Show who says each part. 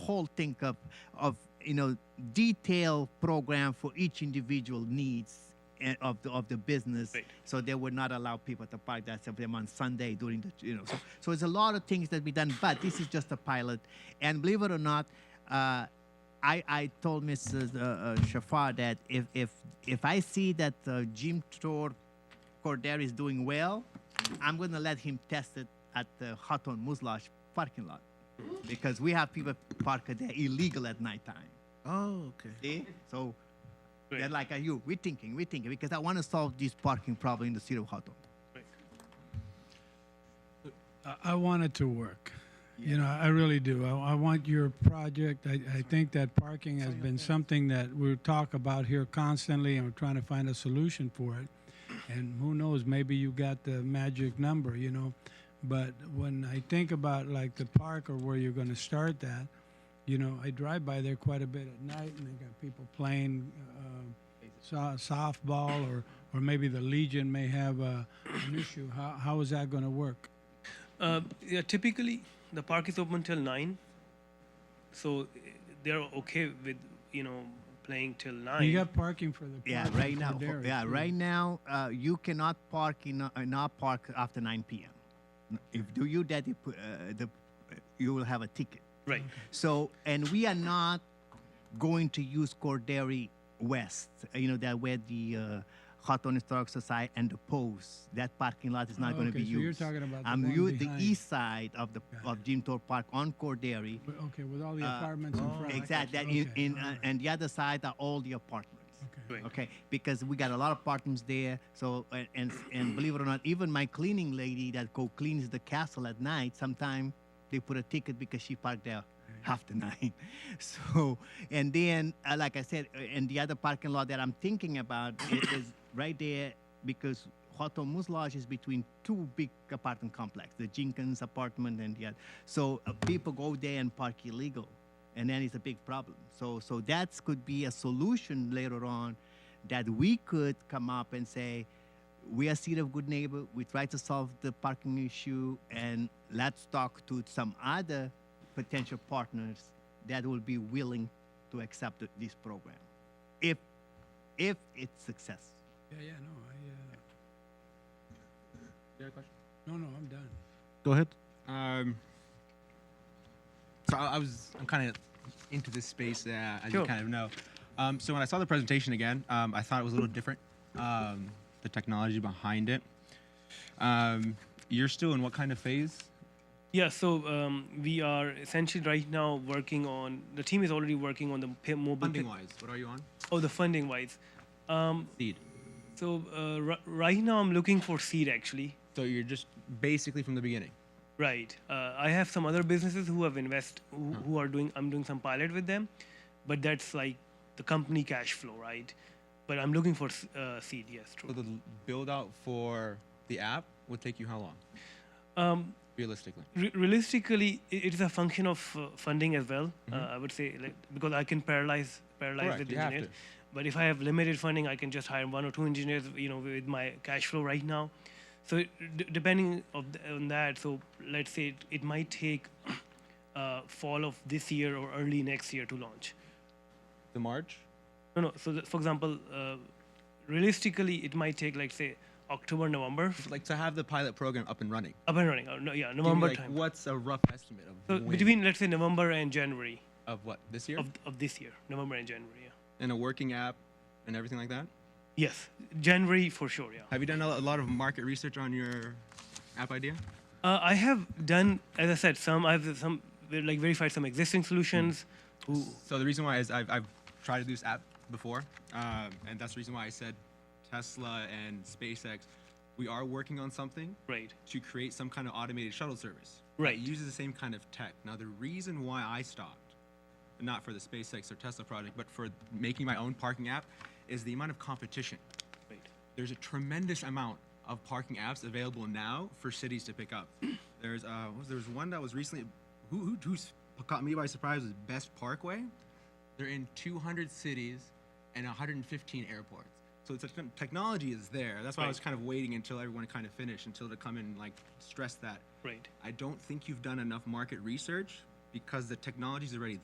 Speaker 1: whole think of of you know detailed program for each individual needs and of the of the business
Speaker 2: Right.
Speaker 1: so they would not allow people to park that some of them on sunday during the you know so, so it's a lot of things that be done but this is just a pilot and believe it or not uh, I, I told Mrs. Uh, uh, Shafar that if, if if I see that uh, Jim Tor Corder is doing well, I'm going to let him test it at the Hutton Muslash parking lot because we have people park there illegal at nighttime.
Speaker 3: Oh, okay.
Speaker 1: See? So they're
Speaker 2: Right.
Speaker 1: like, are you? We're thinking, we're thinking because I want to solve this parking problem in the city of Hutton.
Speaker 4: I- I want it to work. You know, I really do. I, I want your project. I, I think that parking has been something that we talk about here constantly, and we're trying to find a solution for it. And who knows, maybe you got the magic number, you know. But when I think about like the park or where you're going to start that, you know, I drive by there quite a bit at night, and they got people playing uh, so- softball, or or maybe the Legion may have a, an issue. How how is that going to work?
Speaker 2: Uh, yeah, typically the park is open till nine, so eh, they're okay with you know playing till nine.
Speaker 4: You got parking for the
Speaker 1: Yeah,
Speaker 4: parking
Speaker 1: right
Speaker 4: for
Speaker 1: now.
Speaker 4: Derek,
Speaker 1: yeah,
Speaker 4: too.
Speaker 1: right now uh, you cannot park in uh, not park after 9 p.m. If do you that, you put, uh, the you will have a ticket.
Speaker 2: Right.
Speaker 1: So, and we are not going to use Corderi West, you know, that where the uh, Hawthorne Historic Society and the Post, that parking lot is not going to
Speaker 4: Oh, Okay,
Speaker 1: be
Speaker 4: so you're
Speaker 1: used.
Speaker 4: talking about the
Speaker 1: I'm
Speaker 4: one
Speaker 1: use the
Speaker 4: behind.
Speaker 1: east side of the of Jim Thorpe Park on Corderi.
Speaker 4: But, okay, with all the
Speaker 1: Uh,
Speaker 4: apartments in front.
Speaker 1: Exactly. That in,
Speaker 4: Okay,
Speaker 1: in,
Speaker 4: all
Speaker 1: uh,
Speaker 4: right,
Speaker 1: and the other side are all the apartments.
Speaker 4: okay.
Speaker 2: Right.
Speaker 1: Okay, because we got a lot of apartments there. So and and, and believe it or not, even my cleaning lady that go cleans the castle at night, sometime they put a ticket because she parked there half the night. So and then, uh, like I said, uh, and the other parking lot that I'm thinking about i- is, right there because Hotel Muslage is between two big apartment complex, the Jenkins apartment and the other. So uh, people go there and park illegal. And then it's a big problem. So, so that could be a solution later on that we could come up and say, we are City of Good Neighbor. We try to solve the parking issue, and let's talk to some other potential partners that will be willing to accept th- this program, if if it's success.
Speaker 4: Yeah, yeah, no, I, uh. No, no, I'm done.
Speaker 3: Go ahead.
Speaker 5: Um, so I, I was, I'm kind of into this space, uh, as
Speaker 2: Sure.
Speaker 5: you kind of know. Um, so when I saw the presentation again, um, I thought it was a little different, um, the technology behind it. Um, you're still in what kind of phase?
Speaker 2: Yeah, so um, we are essentially right now working on the team is already working on the pay, mobile
Speaker 5: Funding
Speaker 2: pay-
Speaker 5: wise, what are you on?
Speaker 2: Oh, the funding wise. Um,
Speaker 5: Seed.
Speaker 2: so uh, r- right now I'm looking for seed actually.
Speaker 5: So you're just basically from the beginning.
Speaker 2: Right. Uh, I have some other businesses who have invest who,
Speaker 5: Hmm.
Speaker 2: who are doing I'm doing some pilot with them, but that's like the company cash flow, right? But I'm looking for s- uh, seed. Yes,
Speaker 5: So
Speaker 2: true.
Speaker 5: the build out for the app will take you how long,
Speaker 2: Um,
Speaker 5: realistically?
Speaker 2: re- realistically, i- it is a function of uh, funding as well. Uh, I would say like, because I can paralyze paralyze
Speaker 5: Mm-hmm. Correct,
Speaker 2: with
Speaker 5: you have
Speaker 2: engineers.
Speaker 5: to.
Speaker 2: But if I have limited funding, I can just hire one or two engineers. You know, with my cash flow right now. So it, d- depending of th- on that, so let's say it, it might take uh, fall of this year or early next year to launch.
Speaker 5: The March?
Speaker 2: No, no. So, th- for example, uh, realistically, it might take like say October, November, f-
Speaker 5: Like to have the pilot program up and running.
Speaker 2: up and running. Or, no, yeah,
Speaker 5: Give me,
Speaker 2: November
Speaker 5: like,
Speaker 2: time.
Speaker 5: What's a rough estimate of
Speaker 2: So
Speaker 5: when?
Speaker 2: between let's say November and January
Speaker 5: of what this year
Speaker 2: of, of this year, November and January. Yeah.
Speaker 5: and a working app and everything like that?
Speaker 2: Yes, January for sure. Yeah.
Speaker 5: Have you done a a lot of market research on your app idea?
Speaker 2: Uh, I have done, as I said, some I've some like verified some existing solutions. Who
Speaker 5: So the reason why is I've, I've tried to do this app before, um, and that's the reason why I said Tesla and SpaceX. We are working on something
Speaker 2: right?
Speaker 5: to create some kind of automated shuttle service.
Speaker 2: Right.
Speaker 5: It uses the same kind of tech. Now the reason why I stopped, not for the SpaceX or Tesla project, but for making my own parking app, is the amount of competition.
Speaker 2: Right.
Speaker 5: there's a tremendous amount of parking apps available now for cities to pick up. There's uh, what was, there was one that was recently, who, who who's caught me by surprise was Best Parkway. They're in 200 cities and 115 airports. So the techn- technology is there. That's why I was
Speaker 2: Right.
Speaker 5: kind of waiting until everyone kind of finished, until to come and like stress that.
Speaker 2: Right.
Speaker 5: I don't think you've done enough market research because the technology's already